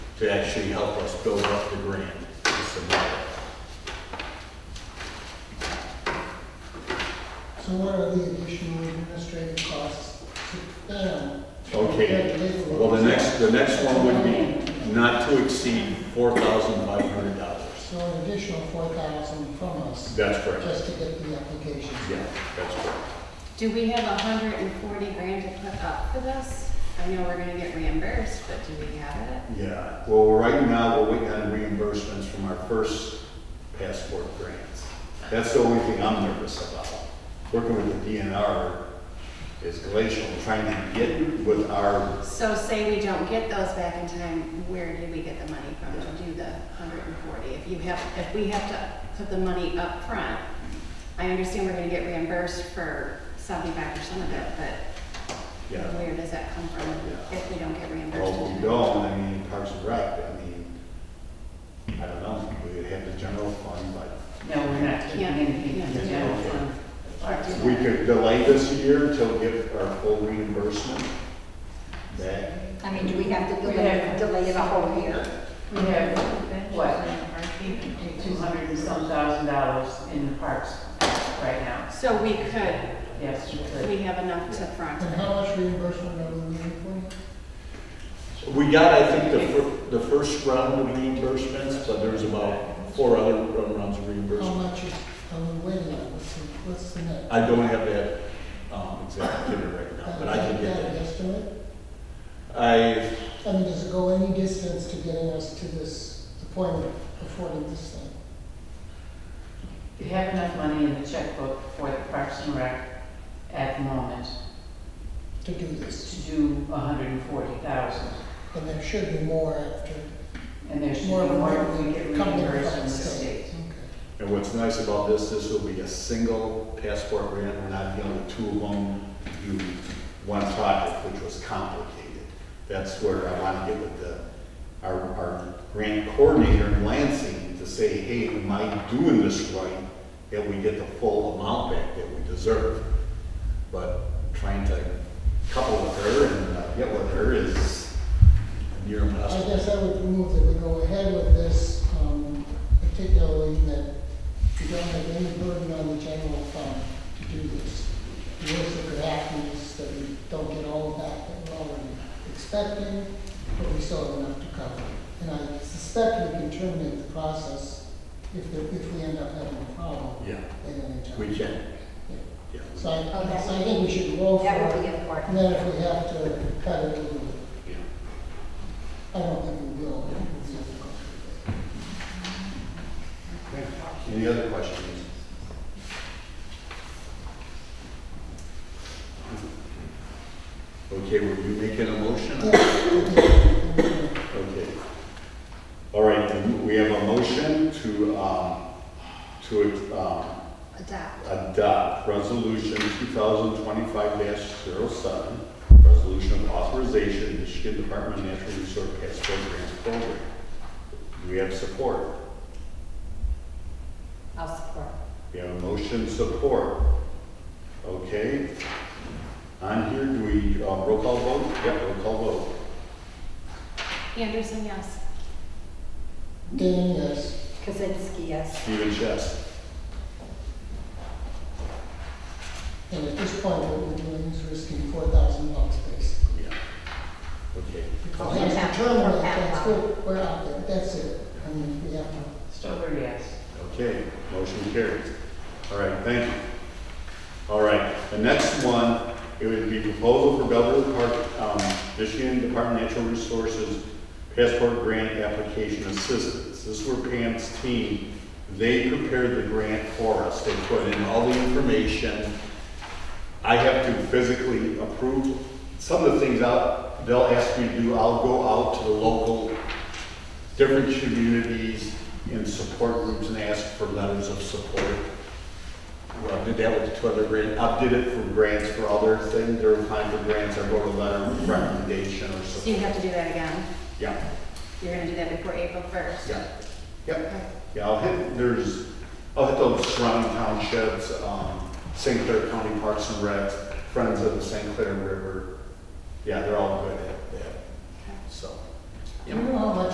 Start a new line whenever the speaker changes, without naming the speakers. to actually help us build up the grant to submit it.
So what are the additional administrative costs to them?
Okay, well, the next, the next one would be not to exceed four thousand five hundred dollars.
So an additional four thousand from us,
That's correct.
just to get the application.
Yeah, that's correct.
Do we have a hundred and forty grand to put up for this? I know we're gonna get reimbursed, but do we have it?
Yeah, well, right now, we're waiting on reimbursements from our first passport grants. That's the only thing I'm nervous about. Working with the DNR is glacial, trying to get with our
So say we don't get those back in time, where did we get the money from to do the hundred and forty? If you have, if we have to put the money up front, I understand we're gonna get reimbursed for seventy-five percent of it, but
Yeah.
where does that come from
Yeah.
if we don't get reimbursed?
Well,
in
we
time?
don't, I mean, Parks and Rec, I mean, I don't know, we have the general fund, but
No, we're not taking
Yeah,
anything from the
yeah,
general
yeah.
fund.
we could delay this a year until we get our full reimbursement back.
I mean, do we have to
We have-
delay, delay it a whole year?
We have, what, two hundred and some thousand dollars in the parks right now.
So we could,
Yes, we could.
we have enough to front.
And how much reimbursement are we looking
We got, I think, the fir, the first round of reimbursements, but there's about four other rounds of
for? How
reimbursement.
much is, are we waiting on? What's the, what's the net?
I don't have that, um, exact figure right now, but I can
Is that
get
an
that.
Estimate?
I,
I mean, does it go any distance to getting us to this, the point of affording this thing?
We have enough money in the checkbook for the Parks and Rec at the moment
To do this?
to do a hundred and forty thousand.
And there should be more after.
And there should be
More than
more if
what
we
we
get
come to
reimbursed from the
us, so.
state.
Okay.
and what's nice about this, this will be a single passport grant, we're not dealing with two of them, do one project, which was complicated. That's where I want to get with the, our, our grant coordinator in Lansing to say, hey, am I doing this right? That we get the full amount back that we deserve. But trying to couple with her and uh, get with her is near
I
impossible.
guess I would move that we go ahead with this, um, particularly that we don't have any burden on the general fund to do this. The worst that could happen is that we don't get all of that that we're already expecting, but we still have enough to cover. And I suspect we can terminate the process if, there- if we end up having a problem
Yeah,
at any time.
we can,
Yeah.
yeah.
So I, so I think we should roll for
That would be
it,
important.
and then if we have to cut it, we will.
yeah.
I don't think we will. It's difficult.
Any other questions? Okay, were you making a motion? Okay. All right, then we have a motion to, um, to, um,
Adopt.
adopt resolution two thousand twenty-five 7 resolution of authorization, Michigan Department of Natural Resource Passport Grants Program. Do we have support?
I'll support.
We have a motion support. Okay. On here, do we, uh, roll call vote? Yep, roll call vote.
Anderson, yes.
Dan, yes.
Kazinsky, yes.
Stephen Chess.
And at this point, what we're doing is risking four thousand bucks, basically.
Yeah. Okay.
Because it's determined that that's good, we're out there, that's it. I mean, we have to,
Stover, yes.
Okay, motion carries. All right, thank you. All right, the next one, it would be proposal for Belgrade Park, um, Michigan Department of Natural Resources Passport Grant Application Assistance. This is where Pam's team, they prepared the grant for us. They put in all the information. I have to physically approve some of the things out, they'll ask me to do. I'll go out to the local different communities and support groups and ask for letters of support. Well, I did that with two other grants, I did it for grants for other things, there were times for grants, I wrote a letter of recommendation or
So you
something.
have to do that again.
Yeah,
You're gonna do that before April first.
yeah, yep, yeah, I'll hit, there's, I'll hit those surrounding townships, um, St. Clair County Parks and Rec, Friends of the St. Clair River. Yeah, they're all good at that, so.
I don't know how much